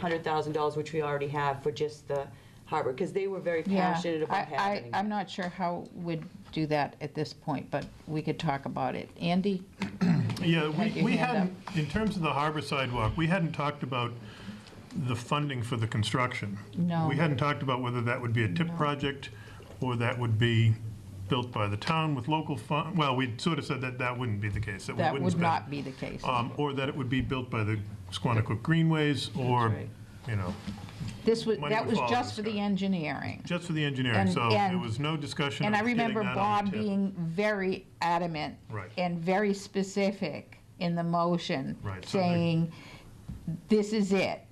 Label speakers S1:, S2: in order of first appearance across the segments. S1: hundred thousand dollars, which we already have for just the harbor, because they were very
S2: Yeah,
S1: passionate
S2: I-
S1: about
S2: I,
S1: having.
S2: I'm not sure how we'd do that at this point, but we could talk about it. Andy?
S3: Yeah,
S2: Had
S3: we
S2: your
S3: we
S2: hand
S3: hadn't, in terms of the harbor sidewalk, we hadn't talked about the funding for the construction.
S2: No.
S3: We hadn't talked about whether that would be a TIP project, or that would be built by the town with local fund, well, we sort of said that that wouldn't be the case, that we
S2: That
S3: wouldn't
S2: would
S3: spend.
S2: not be the case.
S3: Um, Or that it would be built by the Squanicook Greenways, or,
S2: right.
S3: you know,
S2: This was,
S3: money
S2: that
S3: would
S2: was
S3: follow
S2: just
S3: this
S2: for
S3: guy.
S2: the engineering.
S3: just for the engineering,
S2: And-
S3: so there
S2: and-
S3: was no discussion
S2: And I
S3: of getting
S2: remember
S3: that on
S2: Bob
S3: the TIP.
S2: being very adamant.
S3: Right.
S2: And very specific in the motion.
S3: Right, so they-
S2: Saying, this is it.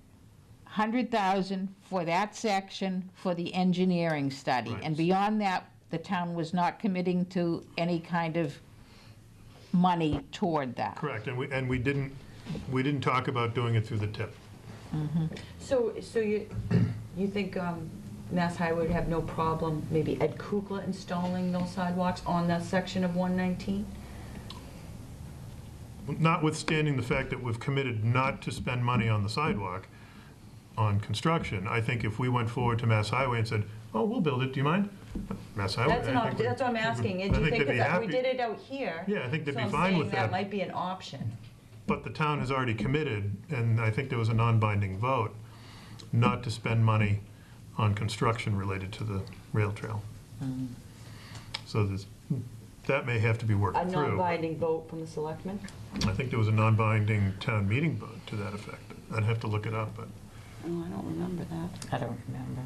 S2: 100,000 for that section for the engineering study.
S3: Right.
S2: And beyond that, the town was not committing to any kind of money toward that.
S3: Correct, and we, and we didn't, we didn't talk about doing it through the TIP.
S1: So, so you, you think um, Mass Highway would have no problem, maybe Ed Kukla installing those sidewalks on that section of one nineteen?
S3: notwithstanding the fact that we've committed not to spend money on the sidewalk, on construction, I think if we went forward to Mass Highway and said, oh, we'll build it, do you mind? Mass Highway.
S1: That's an,
S3: I
S1: op-
S3: think would-
S1: that's what I'm
S3: I
S1: asking,
S3: would-
S1: and do
S3: I
S1: you
S3: they'd
S1: think
S3: be
S1: that we
S3: happy.
S1: did it out here?
S3: Yeah, I think they'd
S1: so
S3: be
S1: I'm
S3: fine with
S1: saying That
S3: that.
S1: might be an option.
S3: But the town has already committed, and I think there was a non-binding vote, not to spend money on construction related to the rail trail.
S1: Hmm.
S3: So this, that may have to be worked
S1: A
S3: through.
S1: non-binding vote from the selectmen?
S3: I think there was a non-binding town meeting vote to that effect. I'd have to look it up, but.
S1: Oh, I don't remember that.
S2: I don't remember.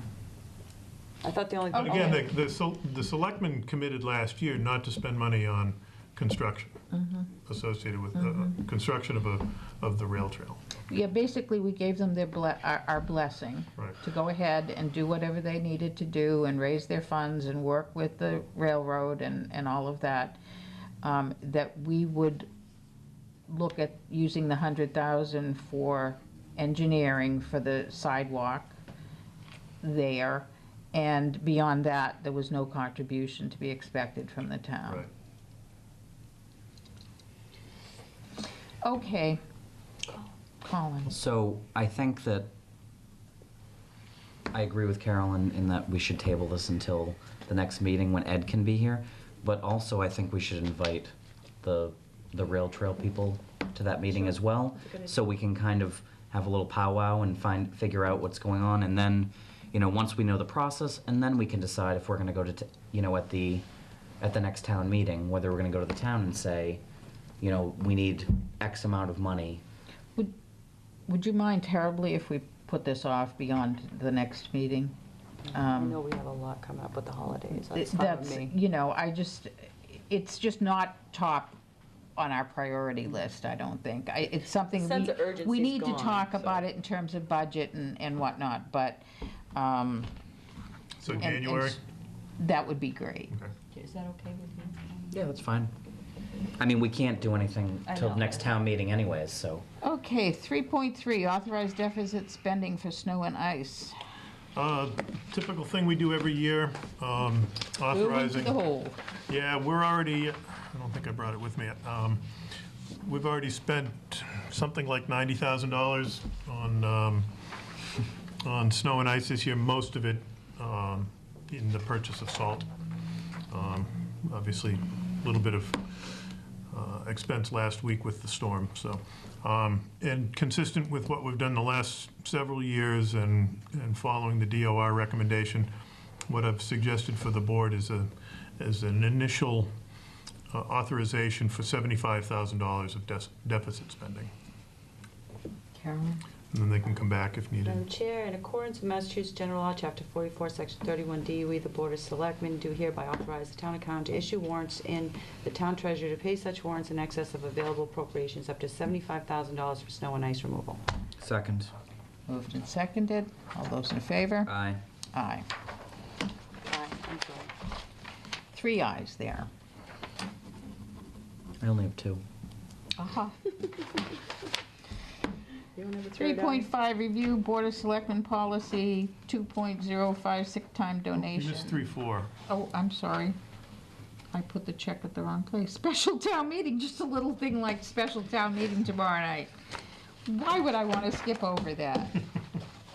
S1: I thought the only.
S2: Oh,
S3: Again, the- the, sel- the selectmen committed last year not to spend money on construction
S2: Mm-hmm.
S3: associated with the construction of a, of the rail trail.
S2: Yeah, basically, we gave them their, ble- our our blessing
S3: Right.
S2: to go ahead and do whatever they needed to do and raise their funds and work with the railroad and, and all of that, um, that we would look at using the hundred thousand for engineering for the sidewalk there. And beyond that, there was no contribution to be expected from the town.
S3: Right.
S2: Okay. Colin.
S4: So I think that I agree with Carolyn in that we should table this until the next meeting when Ed can be here. But also, I think we should invite the, the rail trail people to that meeting as well. So we can kind of have a little powwow and find, figure out what's going on. And then, you know, once we know the process, and then we can decide if we're gonna go to, t- you know, at the, at the next town meeting, whether we're gonna go to the town and say, you know, we need X amount of money
S2: Would, would you mind terribly if we put this off beyond the next meeting?
S1: I
S2: Um,
S1: know we have a lot coming up with the holidays, that's fine with
S2: That's,
S1: me.
S2: you know, I just, it's just not top on our priority
S1: Mm-hmm.
S2: list, I don't think. I, it's something. we-
S1: Sense of urgency's
S2: We need to
S1: gone,
S2: talk
S1: so.
S2: about it in terms of budget and, and whatnot, but, um.
S3: So
S2: and- and
S3: January?
S2: s- That would be great.
S3: Okay.
S1: Is that okay with you?
S4: Yeah, that's fine. I mean, we can't do anything
S1: I
S4: till
S1: know.
S4: next town meeting anyways, so.
S2: Okay, three point three, authorized deficit spending for snow and ice.
S3: Uh, Typical thing we do every year, um, authorizing.
S2: Moving to the hole.
S3: Yeah, we're already, I don't think I brought it with me. Um, We've already spent something like $90,000 on, um, on snow and ice this year, most of it um, in the purchase of salt. Um, Obviously, a little bit of uh, expense last week with the storm, so. um, And consistent with what we've done the last several years and, and following the DOR recommendation, what I've suggested for the board is a, is an initial uh, authorization for $75,000 of des- deficit spending.
S2: Carolyn?
S3: And then they can come back if
S1: Madam
S3: needed.
S1: Chair, in accordance with Massachusetts General Law, Chapter 44, Section 31D, we, the Board of Selectmen, do hereby authorize the town accountant to issue warrants and the town treasurer to pay such warrants in excess of available appropriations up to $75,000 for snow and ice removal.
S4: Second.
S2: Moved and seconded. All those in favor?
S4: Aye.
S2: Aye. Three ayes there.
S4: I only have two.
S2: Aha. 3.5, review Board of Selectmen policy 2.05, sick time
S3: You
S2: donation.
S3: missed three, four.
S2: Oh, I'm sorry. I put the check at the wrong place. Special town meeting, just a little thing like special town meeting tomorrow night. Why would I want to skip over that?